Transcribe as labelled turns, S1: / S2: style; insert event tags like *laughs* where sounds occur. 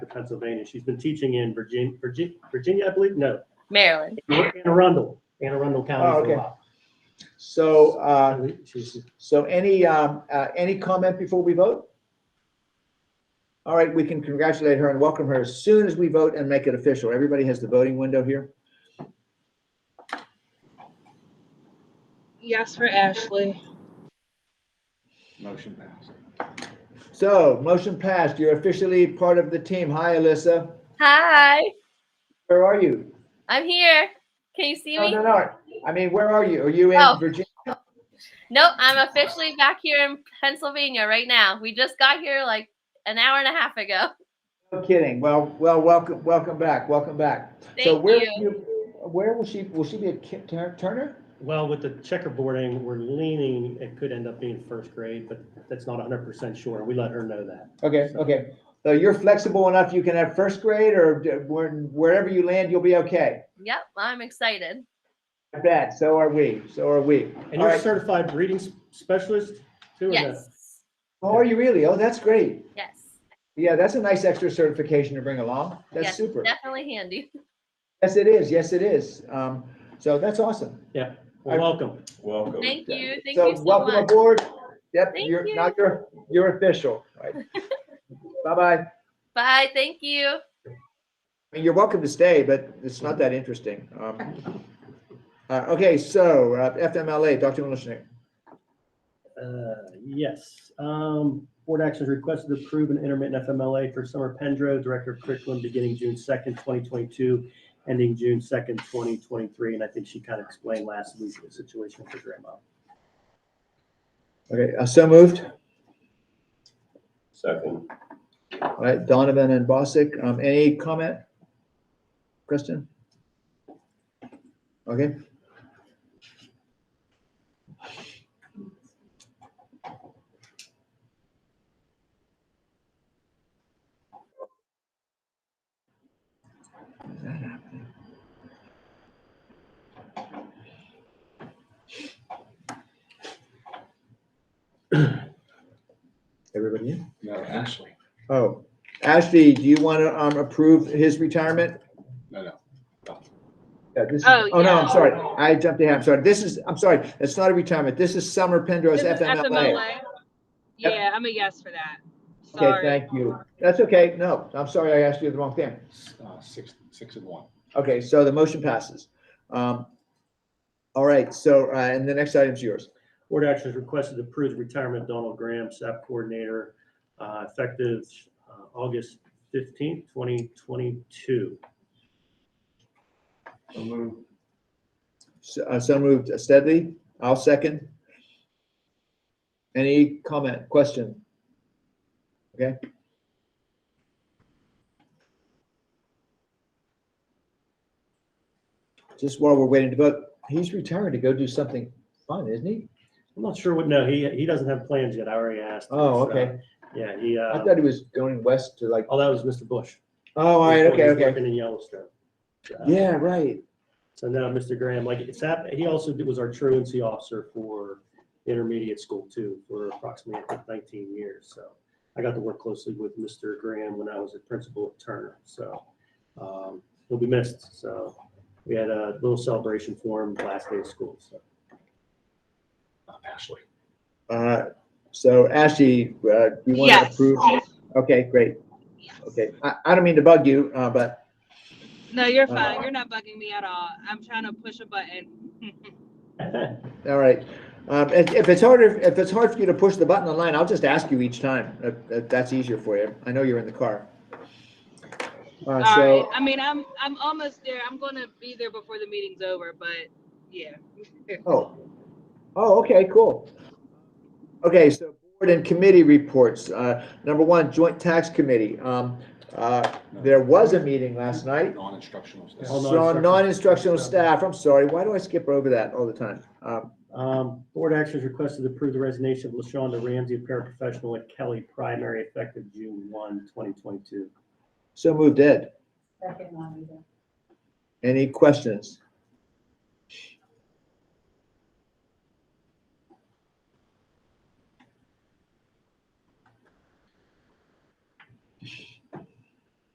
S1: Pennsylvania. She's been teaching in Virginia, Virginia, Virginia, I believe, no,
S2: Maryland.
S1: Anne Arundel, Anne Arundel
S3: Oh,
S1: County for
S3: okay.
S1: a while.
S3: So, uh,
S1: She's,
S3: so any, um, uh, any comment before we vote? All right, we can congratulate her and welcome her as soon as we vote and make it official. Everybody has the voting window here.
S4: Yes for Ashley.
S5: Motion passed.
S3: So motion passed. You're officially part of the team. Hi, Alyssa.
S2: Hi,
S3: Where are you?
S2: I'm here. Can you see
S3: No,
S2: me?
S3: Oh, no, no. I mean, where are you? Are you in
S2: Oh.
S3: Virginia?
S2: Nope, I'm officially back here in Pennsylvania right now. We just got here like an hour and a half ago.
S3: No kidding. Well, well, welcome, welcome back. Welcome back. So
S2: Thank
S3: where,
S2: you.
S3: you- Where will she, will she be at Kip Tur- Turner?
S1: well, with the checkerboarding, we're leaning, it could end up being first grade, but that's not hundred percent sure. We let her know that.
S3: Okay, okay. So you're flexible enough, you can have first grade or d- where- wherever you land, you'll be okay.
S2: Yep, I'm excited.
S3: I bet, so are we, so are we.
S1: And
S3: All
S1: you're a
S3: right.
S1: certified reading s- specialist too? or no?
S2: Yes,
S3: Oh, are you really? Oh, that's great.
S2: yes,
S3: Yeah, that's a nice extra certification to bring along. That's
S2: Yes,
S3: super.
S2: definitely handy.
S3: Yes, it is, yes, it is. Um, so that's awesome.
S1: Well, welcome.
S5: Welcome.
S2: Thank you, thank
S3: So
S2: you so
S3: welcome
S2: much.
S3: aboard. Yep,
S2: Thank
S3: you're,
S2: you.
S3: now you're, you're official.
S2: *laughs*
S3: All right. Bye-bye.
S2: Bye, thank you.
S3: I mean, you're welcome to stay, but it's not that interesting. Um, uh, okay, so uh, FMLA, Dr. Milishnik.
S1: Uh, Yes. Um, Board actions requested to approve an intermittent FMLA for Summer Pendro, Director of Curriculum, beginning June 2nd, 2022, ending June 2nd, 2023. And I think she kind of explained last week the situation for grandma.
S3: Okay, uh, so moved.
S5: Second.
S3: All right, Donovan and Bosick, um, any comment? Kristen? Okay. Is that happening? Everybody in?
S5: No, Ashley.
S3: Oh, Ashley, do you want to um approve his retirement?
S5: No, no.
S3: Yeah, this is-
S4: Oh,
S3: Oh, no, I'm
S4: yeah.
S3: sorry. I jumped ahead. I'm sorry. This is, I'm sorry. It's not a retirement. This is Summer Pendrose
S4: This is
S3: FMLA.
S4: FMLA.
S3: Yep.
S4: Yeah, I'm a yes for that.
S3: Okay,
S4: Sorry.
S3: thank you. That's okay. No, I'm sorry. I asked you the wrong thing.
S5: Uh, Six, six and one.
S3: Okay, so the motion passes. Um, all right, so, uh, and the next item's yours.
S1: Board actions requested to approve the retirement of Donald Graham, SAP Coordinator, uh, effective uh, August 15th, 2022.
S5: So moved.
S3: So uh, so moved Steadley. I'll second. Any comment, question? Okay. Just while we're waiting to vote, he's retiring to go do something fun, isn't he?
S1: I'm not sure what, no, he, he doesn't have plans yet. I already asked. him,
S3: Oh,
S1: so,
S3: okay.
S1: Yeah, he,
S3: I
S1: uh,
S3: thought he was going west to like,
S1: oh, that was Mr. Bush.
S3: oh, all right,
S1: He's-
S3: okay,
S1: he's
S3: okay.
S1: Working in Yellowstone. Uh,
S3: Yeah, right.
S1: So now, Mr. Graham, like it's happened, he also was our truancy officer for intermediate school too, for approximately I think, 19 years. So I got to work closely with Mr. Graham when I was a principal at Turner. So um, he'll be missed. So we had a little celebration for him last day of school. So *laughs*
S5: Ashley.
S3: Uh, So Ashley, uh, you want to
S4: Yes.
S3: approve? Okay, great. Okay, I, I don't mean to bug you, uh, but
S4: No, you're
S3: Uh,
S4: fine. You're not bugging me at all. I'm trying to push a button.
S3: All right. Um, if, if it's harder, if it's hard for you to push the button online, I'll just ask you each time. If, if that's easier for you. I know you're in the car. Uh,
S4: *laughs* All
S3: so,
S4: right. I mean, I'm I'm almost there. I'm gonna be there before the meeting's over, but yeah.
S3: oh, oh, okay, cool. Okay, so board and committee reports. Uh, number one, joint tax committee. Um, uh, there was a meeting last night.
S5: Non-instructional. staff.
S1: Hold on.
S3: So non-instructional staff, I'm sorry, why do I skip over that all the time? Um,
S1: um, board actions requested to approve the resignation of LaShonda Ramsey, paraprofessional at Kelly Primary, effective June 1, 2022.
S3: so moved Ed.
S6: Second one,
S3: Any questions?